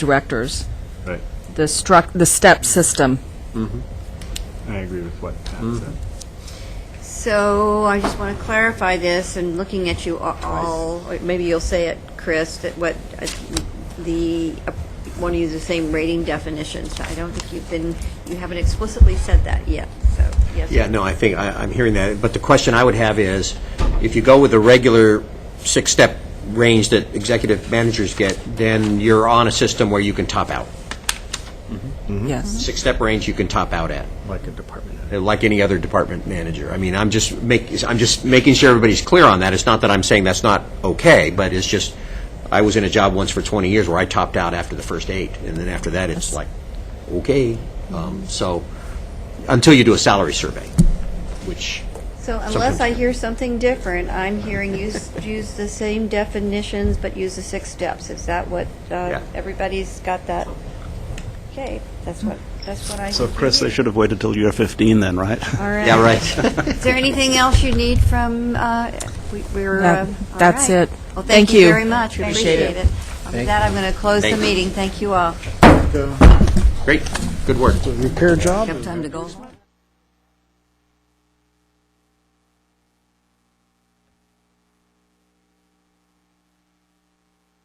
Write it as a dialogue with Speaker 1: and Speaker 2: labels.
Speaker 1: directors,
Speaker 2: Right.
Speaker 1: the struct, the step system.
Speaker 2: I agree with what Pat said.
Speaker 3: So I just want to clarify this, and looking at you a- all, or maybe you'll say it, Chris, that what, uh, the, uh, want to use the same rating definitions. I don't think you've been, you haven't explicitly said that yet, so, yes.
Speaker 4: Yeah, no, I think, I- I'm hearing that, but the question I would have is, if you go with the regular six-step range that executive managers get, then you're on a system where you can top out.
Speaker 1: Yes.
Speaker 4: Six-step range you can top out at,
Speaker 2: Like a department head.
Speaker 4: uh, like any other department manager. I mean, I'm just make, I'm just making sure everybody's clear on that. It's not that I'm saying that's not okay, but it's just, I was in a job once for 20 years where I topped out after the first eight, and then after that, it's like, okay. Um, So, until you do a salary survey, which
Speaker 3: So unless I hear something different, I'm hearing you s- use the same definitions, but use the six steps. Is that what, uh,
Speaker 4: Yeah.
Speaker 3: everybody's got that? Okay, that's what, that's what I.
Speaker 5: So, Chris, they should have waited till you were 15 then, right?
Speaker 3: All right.
Speaker 4: Yeah, right.
Speaker 3: Is there anything else you need from, uh, we- we're,
Speaker 1: No,
Speaker 3: uh, all
Speaker 1: that's
Speaker 3: right.
Speaker 1: it.
Speaker 3: Well, thank
Speaker 1: Thank
Speaker 3: you
Speaker 1: you.
Speaker 3: very much. We
Speaker 1: Appreciate it.
Speaker 3: Appreciate it. With that, I'm going to close the
Speaker 4: Thank you.
Speaker 3: meeting. Thank you all.
Speaker 4: Great, good work.
Speaker 3: Have time to go.